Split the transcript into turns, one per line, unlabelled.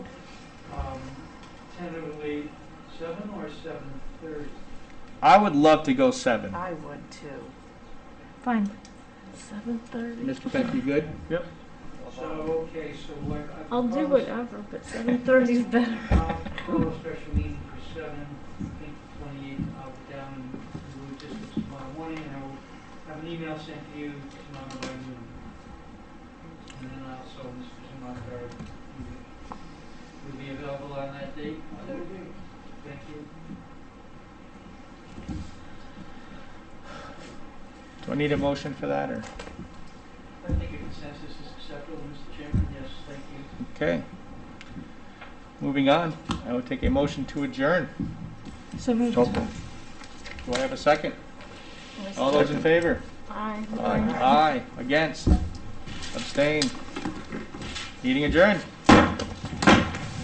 or Um, seven thirty?
I would love to go seven.
I would too. Fine. Seven thirty.
Mr. Peck, you good?
So, okay, so what I
I'll do
propose-
whatever, but seven thirty is better.
I'll call a special meeting for seven, I think twenty-eight, I'll be down in Blue District tomorrow morning, and I will have an email sent to you tomorrow by noon. And then also, Mr. Zamakar, will be available on that date? I will be. Thank you.
Do I need a motion for that
I
or?
think a consensus is acceptable, Mr. Chairman, yes, thank you.
Okay. Moving on, I would take a motion to adjourn.
So moved.
Do I have a second? All those in favor?
Aye.
Aye. Against? Abstain? Meeting adjourned.